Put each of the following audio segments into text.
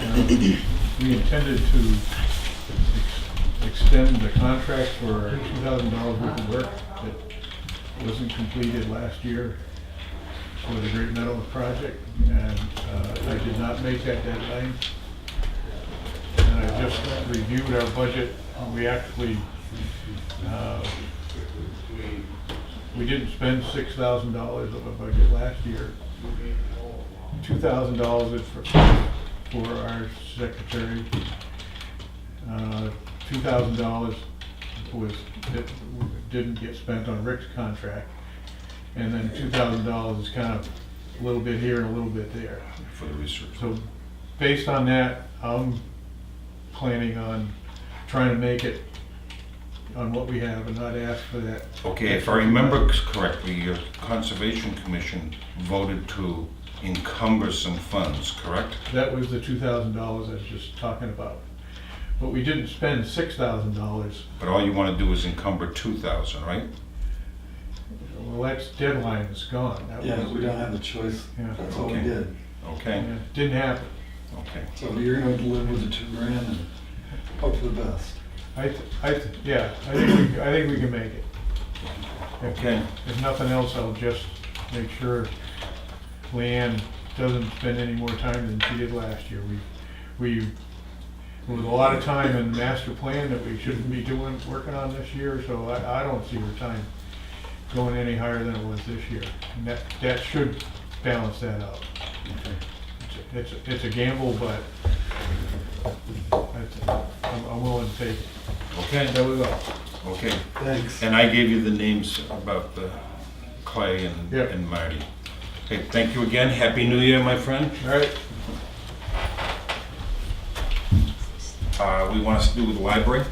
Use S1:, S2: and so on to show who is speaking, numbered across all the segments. S1: and we intended to ex- extend the contract for two thousand dollars worth of work that wasn't completed last year for the Great Meadows project, and uh, I did not make that deadline. And I just reviewed our budget, we actually, uh, we didn't spend six thousand dollars of our budget last year two thousand dollars is for, for our secretary. Uh, Two thousand dollars was, that didn't get spent on Rick's contract. And then two thousand dollars is kind of a little bit here and a little bit there.
S2: for the research.
S1: So based on that, I'm planning on trying to make it on what we have and not ask for that.
S2: Okay, if I remember correctly, your Conservation Commission voted to encumber some funds, correct?
S1: That was the two thousand dollars I was just talking about. But we didn't spend six thousand dollars
S2: But all you want to do is encumber two thousand, right?
S1: Well, that's deadline is gone. That
S3: Yeah,
S1: was-
S3: we don't have a choice.
S1: Yeah.
S3: That's all we
S2: Okay.
S3: did.
S2: Okay,
S1: Yeah, Didn't happen.
S2: okay.
S3: So you're gonna live with the two grand and hope for the best.
S1: I, th- I, th- yeah, I think, we- I think we can make it. If-
S2: Okay.
S1: If nothing else, I'll just make sure Leanne doesn't spend any more time than she did last year. We, we, there was a lot of time in the master plan that we shouldn't be doing, working on this year, so I, I don't see her time going any higher than it was this year. And that, that should balance that out.
S2: okay.
S1: It's, it's a gamble, but that's- I'm I'm willing to take it.
S2: Okay,
S1: There we go.
S2: okay.
S3: Thanks.
S2: And I gave you the names about the Clay and
S1: Yeah.
S2: and Marty. Okay, thank you again. Happy New Year, my friend.
S1: All right,
S2: Uh, We want us to do with the library.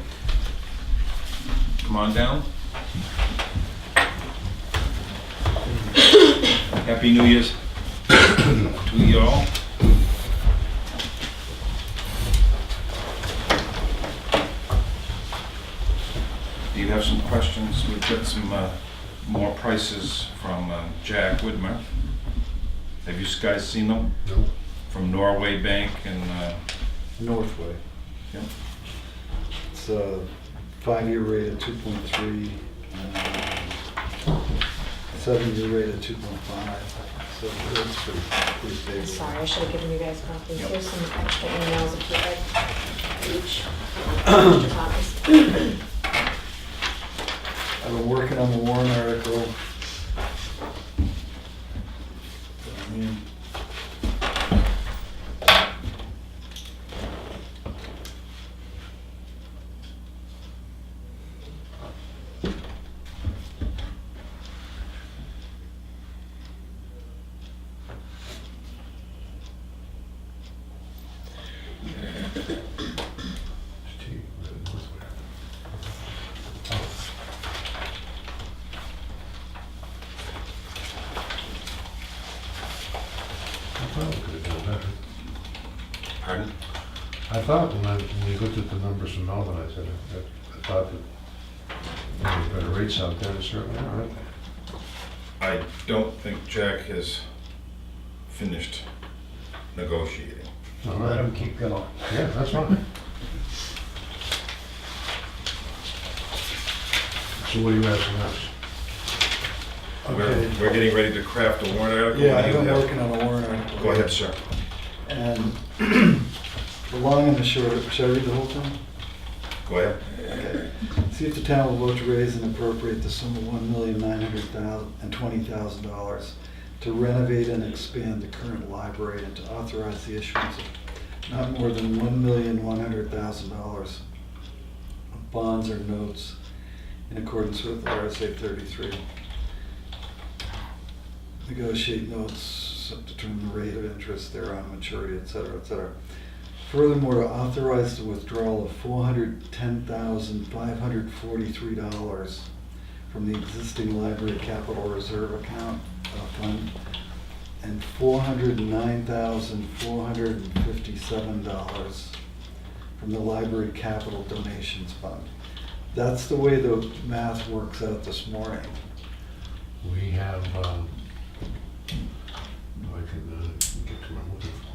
S2: Come on down. Happy New Year's to you all. Do you have some questions? We've got some uh, more prices from uh, Jack Widmer. Have you guys seen them?
S3: No.
S2: From Norway Bank and, uh,
S3: Northway.
S2: Yep.
S3: It's a five-year rate of two point three, seven-year rate of two point five, so that's pretty, pretty stable.
S4: I'm sorry, I should have given you guys copies.
S2: Yep.
S4: Here's some extra emails if you like each. extra copies.
S3: I've been working on the Warren article. I mean,
S5: I thought we could have done better.
S2: pardon?
S5: I thought when I, when we looked at the numbers from Melvin, I said, I- I thought that there were better rates out there, there certainly are.
S2: I don't think Jack has finished negotiating.
S5: Let them keep going. Yeah, that's fine. So what are you asking us?
S2: We're,
S3: Okay.
S2: we're getting ready to craft a warrant article.
S3: Yeah,
S2: What do
S3: I've
S2: you
S3: been
S2: have?
S3: working on a warrant article.
S2: Go ahead, sir.
S3: And the long and the short, should I read the whole thing?
S2: Go ahead.
S3: See if the town will vote to raise and appropriate the sum of one million nine hundred thousand and twenty thousand dollars to renovate and expand the current library and to authorize the issuance of not more than one million one hundred thousand dollars of bonds or notes in accordance with RSA thirty-three. Negotiate notes, determine the rate of interest thereon, maturity, et cetera, et cetera. Furthermore, to authorize the withdrawal of four hundred ten thousand five hundred forty-three dollars from the existing library capital reserve account uh, fund and four hundred nine thousand four hundred and fifty-seven dollars from the library capital donations fund. That's the way the math works out this morning.
S5: oh, We have, um, I can, uh, get to my,